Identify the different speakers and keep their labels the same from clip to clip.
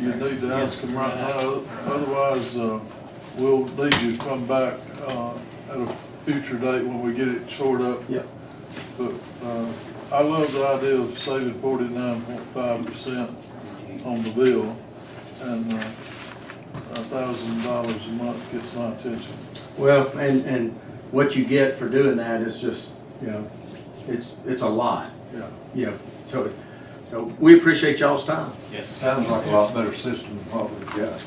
Speaker 1: you need to
Speaker 2: Yes,
Speaker 1: ask them
Speaker 2: we're
Speaker 1: right
Speaker 2: gonna-
Speaker 1: now, otherwise, uh, we'll need you to come back, uh, at a future date when we get it sorted up.
Speaker 3: Yep.
Speaker 1: But, uh, I love the idea of saving forty-nine point five percent on the bill, and, uh, a thousand dollars a month gets my attention.
Speaker 3: Well, and, and what you get for doing that is just, you know, it's, it's a lot,
Speaker 1: Yeah.
Speaker 3: you know, so, so we appreciate y'all's time.
Speaker 2: Yes.
Speaker 4: Sounds like a lot better system than what we've got.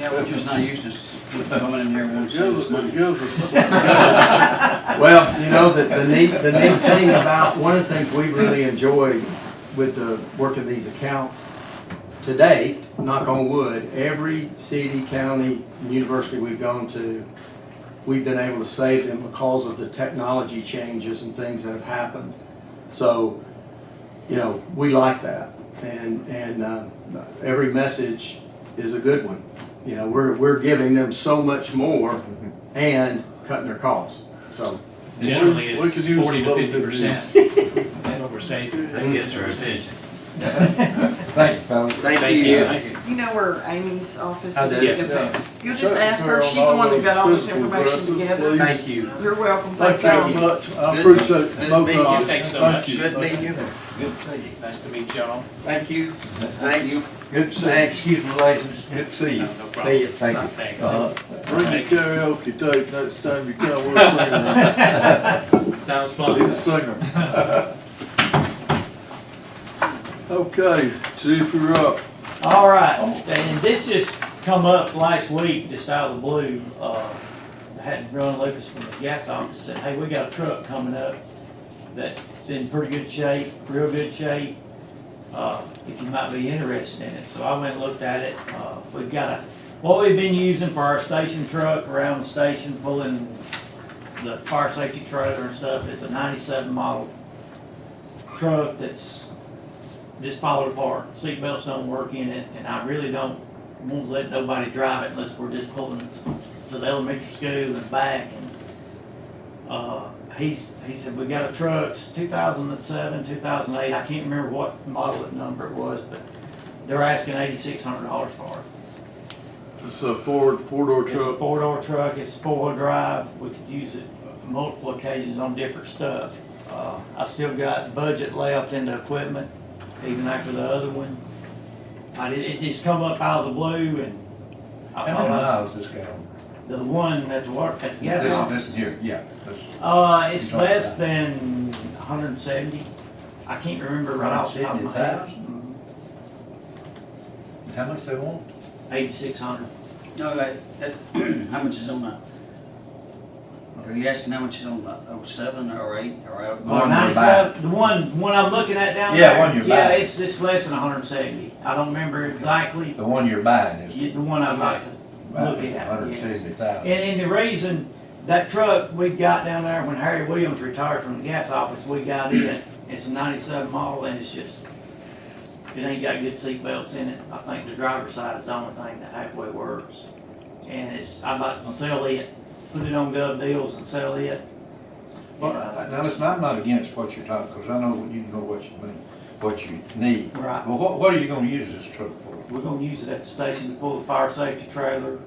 Speaker 2: Yeah, we're just not used to s- going in there and wanting
Speaker 1: It
Speaker 2: to save us
Speaker 1: gives,
Speaker 2: money.
Speaker 1: it gives us,
Speaker 3: Well, you know, the, the neat, the neat thing about, one of the things we really enjoyed with the work of these accounts, to date, knock on wood, every city, county, university we've gone to, we've been able to save them because of the technology changes and things that have happened. So, you know, we like that. And, and, uh, every message is a good one. You know, we're, we're giving them so much more and cutting their costs, so.
Speaker 2: Generally,
Speaker 1: We
Speaker 2: it's
Speaker 1: could use a
Speaker 2: forty to
Speaker 1: little
Speaker 2: fifty
Speaker 1: bit
Speaker 2: percent. That's what we're saving.
Speaker 5: That gets our attention.
Speaker 4: Thank you, fellas.
Speaker 2: Thank you. Thank
Speaker 6: You know where Amy's office
Speaker 3: I
Speaker 6: is?
Speaker 3: do.
Speaker 2: Yes.
Speaker 6: You'll just ask her, she's the one that got all this information together.
Speaker 3: Thank you.
Speaker 6: You're welcome,
Speaker 1: thank
Speaker 6: thank
Speaker 1: you very
Speaker 6: you.
Speaker 1: much, I appreciate
Speaker 5: Good
Speaker 1: both of
Speaker 5: meeting you.
Speaker 1: you.
Speaker 2: Thanks so much.
Speaker 1: you.
Speaker 5: Good meeting you.
Speaker 2: Good to see you. Nice to meet y'all.
Speaker 3: Thank you.
Speaker 5: Thank you.
Speaker 4: Good to see you. Excuse me, ladies. Good to see you.
Speaker 2: No
Speaker 3: See
Speaker 2: problem.
Speaker 3: you.
Speaker 4: Thank you.
Speaker 2: Thanks.
Speaker 4: Uh,
Speaker 1: Bring your karaoke tape next time you come, we'll sing that. He's
Speaker 2: Sounds fun.
Speaker 1: a singer. Okay, Chief, you're up.
Speaker 7: All right, and this just come up last week, just out of the blue. Uh, I had Ron Lucas from the gas office said, hey, we got a truck coming up that's in pretty good shape, real good shape. Uh, if you might be interested in it. So I went and looked at it. Uh, we've got a, what we've been using for our station truck around the station pulling the fire safety trailer and stuff is a ninety-seven model truck that's just falling apart. Seat belts don't work in it, and I really don't want to let nobody drive it unless we're just pulling it to the elementary school and back. And uh, he's he said we got a truck, it's 2007, 2008. I can't remember what model and number it was, but they're asking $8,600 for it.
Speaker 1: It's a Ford, four-door
Speaker 7: It's a
Speaker 1: truck.
Speaker 7: four-door truck, it's four-wheel drive, we could use it multiple occasions on different stuff. Uh, I've still got budget left in the equipment, even after the other one. I did, it just come up out of the blue and
Speaker 4: How
Speaker 7: I
Speaker 4: many
Speaker 7: thought, uh,
Speaker 4: miles this guy on?
Speaker 7: the one that's worked at the gas
Speaker 4: This-
Speaker 7: office.
Speaker 4: This year, yeah. this-
Speaker 7: Uh, it's
Speaker 4: You talking
Speaker 7: less
Speaker 4: about-
Speaker 7: than hundred and seventy. I can't remember right off the top of my head. Mm-hmm.
Speaker 4: How much they want?
Speaker 7: Eighty-six hundred.
Speaker 2: No, that, that's, how much is on that? Are you asking how much is on that, oh, seven or eight or out?
Speaker 4: One
Speaker 7: Or
Speaker 4: you're
Speaker 7: ninety-seven, the one, one I'm looking at down
Speaker 4: Yeah,
Speaker 7: there.
Speaker 4: one you're
Speaker 7: Yeah,
Speaker 4: buying.
Speaker 7: it's, it's less than hundred and seventy. I don't remember exactly,
Speaker 4: The one you're buying is.
Speaker 7: You- the one I'd like to look at, yes.
Speaker 4: Hundred seventy thousand.
Speaker 7: And, and the reason, that truck we got down there when Harry Williams retired from the gas office, we got it. It's a ninety-seven model and it's just, it ain't got good seat belts in it. I think the driver's side is the only thing that halfway works. And it's, I'd like to sell it, put it on gov deals and sell it.
Speaker 4: Well,
Speaker 7: Uh,
Speaker 4: now listen, I'm not against what you're talking, because I know, what you know what you mean, what you need.
Speaker 7: uh, Right.
Speaker 4: Well, what, what are you gonna use this truck for?
Speaker 7: We're gonna use it at the station to pull the fire safety trailer.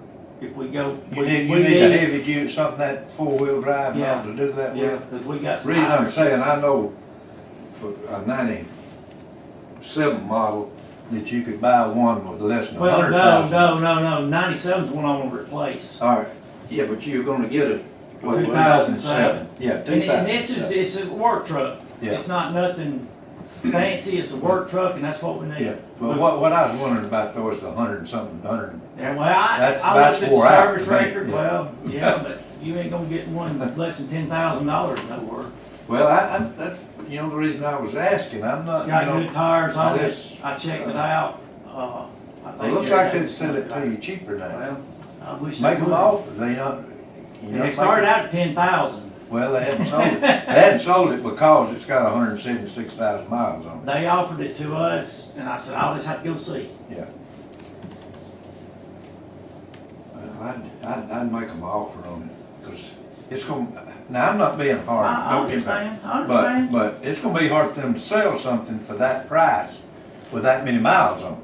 Speaker 7: If we go.
Speaker 4: You
Speaker 7: we-
Speaker 4: need,
Speaker 7: we
Speaker 4: you need a heavy duty, something that four-wheel drive,
Speaker 7: Yeah.
Speaker 4: not to do that
Speaker 7: Yeah,
Speaker 4: with.
Speaker 7: cause we got. some
Speaker 4: Reason I'm
Speaker 7: hydrants.
Speaker 4: saying, I know for a ninety-seven model, that you could buy one with less than a
Speaker 7: Well,
Speaker 4: hundred
Speaker 7: no,
Speaker 4: thousand. Oh,
Speaker 7: no, no, no, ninety-seven's one I wanna replace.
Speaker 4: All right, yeah, but you're gonna get a, what, two
Speaker 7: 2007.
Speaker 4: thousand seven? Yeah,
Speaker 7: And,
Speaker 4: two
Speaker 7: and
Speaker 4: thousand
Speaker 7: this is,
Speaker 4: seven.
Speaker 7: it's a work truck.
Speaker 4: Yeah.
Speaker 7: It's not nothing fancy, it's a work truck and that's what we
Speaker 4: Yeah,
Speaker 7: need.
Speaker 4: but what, what I was wondering about though is the hundred and something, hundred and
Speaker 7: And well, I,
Speaker 4: That's-
Speaker 7: I
Speaker 4: that's
Speaker 7: looked at the
Speaker 4: wore out
Speaker 7: service
Speaker 4: to me,
Speaker 7: record,
Speaker 4: yeah.
Speaker 7: well, yeah, but you ain't gonna get one less than ten thousand dollars nowhere.
Speaker 4: Well, I, I'm, that's, you know, the reason I was asking, I'm not,
Speaker 7: It's
Speaker 4: Uh, you
Speaker 7: got
Speaker 4: know,
Speaker 7: good tires on it,
Speaker 4: this-
Speaker 7: I checked it out, uh. I
Speaker 4: it
Speaker 7: think
Speaker 4: looks like
Speaker 7: everything-
Speaker 4: they'd sell it to you cheaper now.
Speaker 7: Well, I wish. they
Speaker 4: Make them
Speaker 7: would.
Speaker 4: offer, they not, you
Speaker 7: And
Speaker 4: know.
Speaker 7: It
Speaker 4: make
Speaker 7: started
Speaker 4: it-
Speaker 7: out at ten thousand.
Speaker 4: Well, they hadn't sold it, they hadn't sold it because it's got hundred and seventy-six thousand miles on it.
Speaker 7: They offered it to us and I said, I'll just have to go see.
Speaker 4: Well, I'd, I'd, I'd make them offer on it, because it's gonna, now, I'm not being
Speaker 7: I,
Speaker 4: hard.
Speaker 7: I
Speaker 4: don't get me wrong,
Speaker 7: understand, I understand.
Speaker 4: But, but it's gonna be hard for them to sell something for that price with that many miles on it.